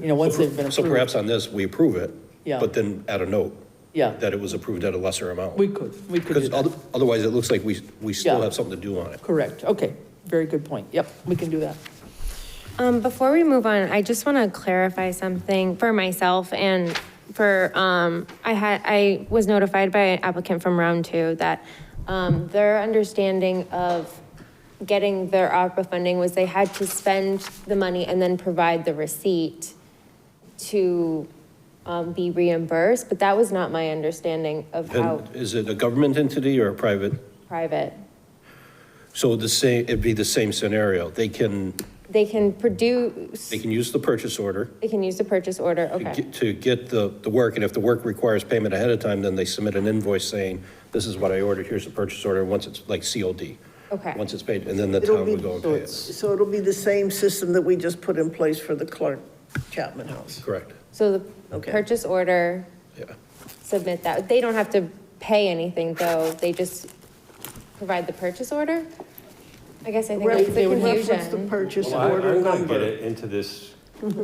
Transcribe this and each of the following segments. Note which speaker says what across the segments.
Speaker 1: you know, once they've been
Speaker 2: So
Speaker 1: approved.
Speaker 2: perhaps on this, we approve it,
Speaker 1: Yeah.
Speaker 2: but then add a note
Speaker 1: Yeah,
Speaker 2: that it was approved at a lesser amount.
Speaker 1: we could, we could do
Speaker 2: Because
Speaker 1: that.
Speaker 2: oth- otherwise, it looks like we, we still
Speaker 1: Yeah.
Speaker 2: have something to do on it.
Speaker 1: Correct, okay, very good point. Yep, we can do that.
Speaker 3: Um, before we move on, I just want to clarify something for myself and for, um, I had, I was notified by an applicant from round two that, um, their understanding of getting their ARPA funding was they had to spend the money and then provide the receipt to, um, be reimbursed, but that was not my understanding of how
Speaker 2: And is it a government entity or a private?
Speaker 3: private.
Speaker 2: So the same, it'd be the same scenario. They can,
Speaker 3: They can produce,
Speaker 2: they can use the purchase order
Speaker 3: they can use the purchase order,
Speaker 2: to
Speaker 3: okay,
Speaker 2: get- to get the, the work, and if the work requires payment ahead of time, then they submit an invoice saying, this is what I ordered, here's the purchase order, once it's like COD.
Speaker 3: Okay.
Speaker 2: Once it's paid, and then the
Speaker 4: It'll
Speaker 2: town
Speaker 4: be
Speaker 2: would go and pay it.
Speaker 4: So it'll be the same system that we just put in place for the Clark Chapman House.
Speaker 2: Correct,
Speaker 3: so the
Speaker 4: Okay.
Speaker 3: purchase order
Speaker 2: yeah.
Speaker 3: submit that. They don't have to pay anything, though. They just provide the purchase order? I guess I think that's the
Speaker 4: They would reference the
Speaker 3: confusion.
Speaker 4: purchase
Speaker 5: Well, I-
Speaker 4: order
Speaker 5: I'm gonna get
Speaker 4: number.
Speaker 5: it into this,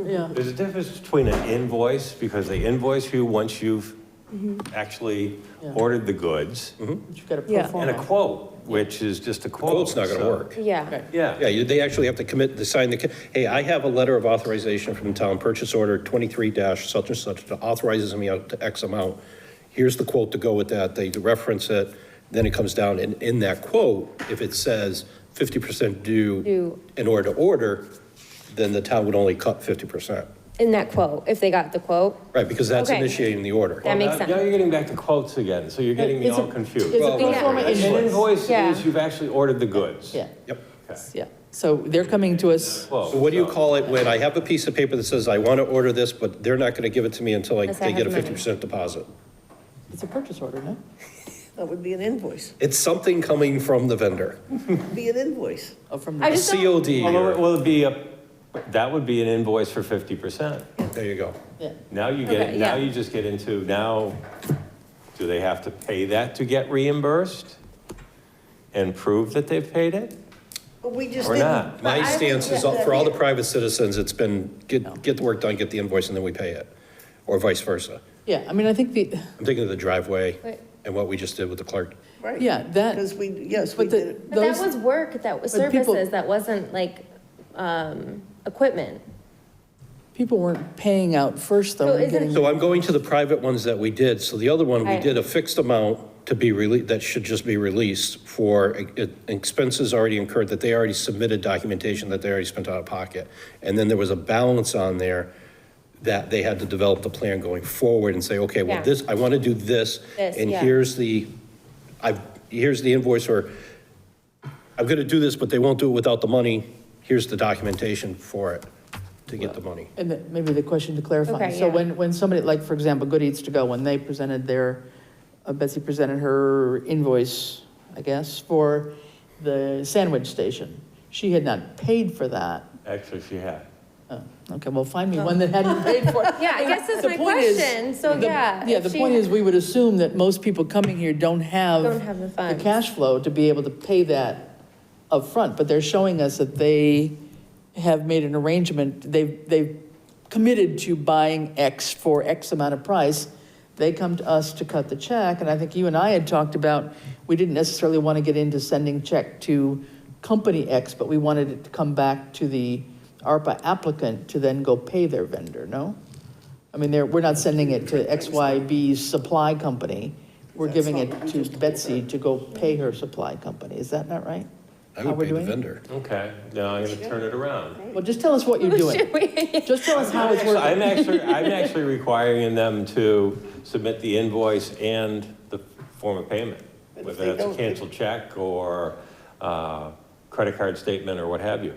Speaker 1: Yeah,
Speaker 5: there's a difference between an invoice, because they invoice you once you've actually
Speaker 1: Mm-hmm. Yeah. Uh-huh.
Speaker 5: ordered the goods,
Speaker 1: you've got to
Speaker 6: Yeah.
Speaker 1: pro
Speaker 5: and a
Speaker 1: forma.
Speaker 5: quote, which is just a quote.
Speaker 2: Mm-hmm. Quote's not gonna
Speaker 5: so-
Speaker 2: work.
Speaker 3: Yeah,
Speaker 1: Okay.
Speaker 2: Yeah,
Speaker 5: Yeah,
Speaker 2: you- they actually have to commit, to sign the, hey, I have a letter of authorization from town, purchase order 23 dash such and such, that authorizes me out to X amount. Here's the quote to go with that, they reference it, then it comes down, and in that quote, if it says 50% due
Speaker 3: Due.
Speaker 2: in order to order, then the town would only cut 50%,
Speaker 3: in that quote, if they got the quote.
Speaker 2: right? Because that's
Speaker 3: Okay.
Speaker 2: initiating the order.
Speaker 3: That makes
Speaker 5: Now- Now
Speaker 3: sense.
Speaker 5: you're getting back to quotes again, so you're getting me
Speaker 1: It's a-
Speaker 5: all confused.
Speaker 1: It's a pro
Speaker 3: Yeah.
Speaker 1: forma
Speaker 5: An
Speaker 1: invoice.
Speaker 5: invoice
Speaker 3: Yeah.
Speaker 5: is you've actually ordered the goods.
Speaker 1: Yeah,
Speaker 2: Yep.
Speaker 1: yeah. So they're coming to us,
Speaker 5: Quote,
Speaker 2: So what do you
Speaker 5: so-
Speaker 2: call it when I have a piece of paper that says, I want to order this, but they're not going to give it to me until I-
Speaker 3: Unless I
Speaker 2: they get a
Speaker 3: have money.
Speaker 2: 50% deposit?
Speaker 1: it's a purchase order, no?
Speaker 4: That would be an invoice,
Speaker 2: It's something coming from the vendor.
Speaker 4: be an invoice.
Speaker 1: Oh, from,
Speaker 3: I
Speaker 2: A
Speaker 3: just don't,
Speaker 2: COD,
Speaker 5: Well,
Speaker 2: or-
Speaker 5: Will it be a, that would be an invoice for 50%.
Speaker 2: there you go.
Speaker 1: yeah.
Speaker 5: Now you get,
Speaker 3: Okay,
Speaker 5: now
Speaker 3: yeah.
Speaker 5: you just get into, now, do they have to pay that to get reimbursed? And prove that they've paid it?
Speaker 4: But we just
Speaker 5: Or
Speaker 4: didn't-
Speaker 5: not.
Speaker 2: My
Speaker 3: I think
Speaker 2: stance is,
Speaker 3: that-
Speaker 2: for all the private citizens, it's been, get, get the work done, get the invoice, and then we pay it, or vice versa.
Speaker 1: Yeah, I mean, I think the,
Speaker 2: I'm thinking of the driveway
Speaker 3: Right.
Speaker 2: and what we just did with the clerk.
Speaker 4: Right.
Speaker 1: yeah, that.
Speaker 4: Because we, yes, we
Speaker 1: But
Speaker 4: did
Speaker 1: the,
Speaker 4: it.
Speaker 3: but that
Speaker 1: those,
Speaker 3: was work, that was
Speaker 1: But people-
Speaker 3: services, that wasn't like, um, equipment.
Speaker 1: people weren't paying out first, though.
Speaker 3: So
Speaker 1: We're
Speaker 3: isn't-
Speaker 1: getting-
Speaker 2: So I'm going to the private ones that we did, so the other one, we
Speaker 3: Right.
Speaker 2: did a fixed amount to be released, that should just be released for e- e- expenses already incurred, that they already submitted documentation that they already spent out of pocket. And then there was a balance on there that they had to develop the plan going forward and say, okay, well,
Speaker 3: Yeah.
Speaker 2: this, I want to do this,
Speaker 3: This,
Speaker 2: and
Speaker 3: yeah.
Speaker 2: here's the, I, here's the invoice, or I'm going to do this, but they won't do it without the money, here's the documentation for it, to get the money.
Speaker 1: And the- maybe the question to clarify.
Speaker 3: Okay,
Speaker 1: So
Speaker 3: yeah.
Speaker 1: when, when somebody, like, for example, Good Eats To Go, when they presented their, uh, Betsy presented her invoice, I guess, for the sandwich station. She had not paid for that.
Speaker 5: Actually, if you have.
Speaker 1: Oh, Okay, well, find me one that hadn't paid for it.
Speaker 3: Yeah, I guess that's
Speaker 1: The
Speaker 3: my
Speaker 1: point is-
Speaker 3: question, so
Speaker 1: the-
Speaker 3: yeah.
Speaker 1: Yeah,
Speaker 3: if
Speaker 1: the
Speaker 3: she-
Speaker 1: point is, we would assume that most people coming here don't have.
Speaker 3: Don't have the funds.
Speaker 1: cash flow to be able to pay that upfront, but they're showing us that they have made an arrangement, they've, they've committed to buying X for X amount of price. They come to us to cut the check, and I think you and I had talked about, we didn't necessarily want to get into sending check to company X, but we wanted it to come back to the ARPA applicant to then go pay their vendor, no? I mean, they're, we're not sending it to XYB's supply company. We're giving it to Betsy to go pay her supply company. Is that not right?
Speaker 2: I
Speaker 1: How
Speaker 2: would
Speaker 1: we're
Speaker 2: pay the
Speaker 1: doing it?
Speaker 2: vendor.
Speaker 5: Okay, now I'm gonna turn it around.
Speaker 1: Well, just tell us what you're doing. Just tell us how it's
Speaker 5: So I'm
Speaker 1: working.
Speaker 5: actually, I'm actually requiring them to submit the invoice and the form of payment,
Speaker 4: But if
Speaker 5: whether
Speaker 4: they
Speaker 5: that's a
Speaker 4: don't, they-
Speaker 5: canceled check or uh, credit card statement or what have you.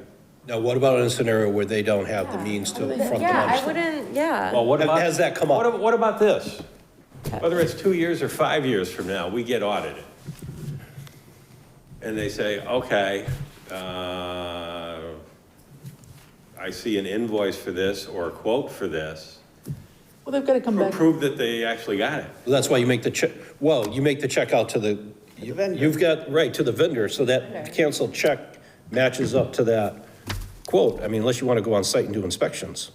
Speaker 2: Now, what about in a scenario where they don't have the means to front the
Speaker 3: Yeah, I
Speaker 2: money?
Speaker 3: wouldn't, yeah.
Speaker 5: Well, what
Speaker 2: Has-
Speaker 5: about?
Speaker 2: has that come up?
Speaker 5: What ab- What about this? Whether it's two years or five years from now, we get audited. And they say, okay, uh, I see an invoice for this or a quote for this.
Speaker 1: Well, they've got to come back.
Speaker 5: Prove that they actually got it.
Speaker 2: Well, That's why you make the check, well, you make the check out to the, you-
Speaker 4: vendor.
Speaker 2: you've got, right, to the vendor, so that canceled check matches up to that quote. I mean, unless you want to go on site and do inspections.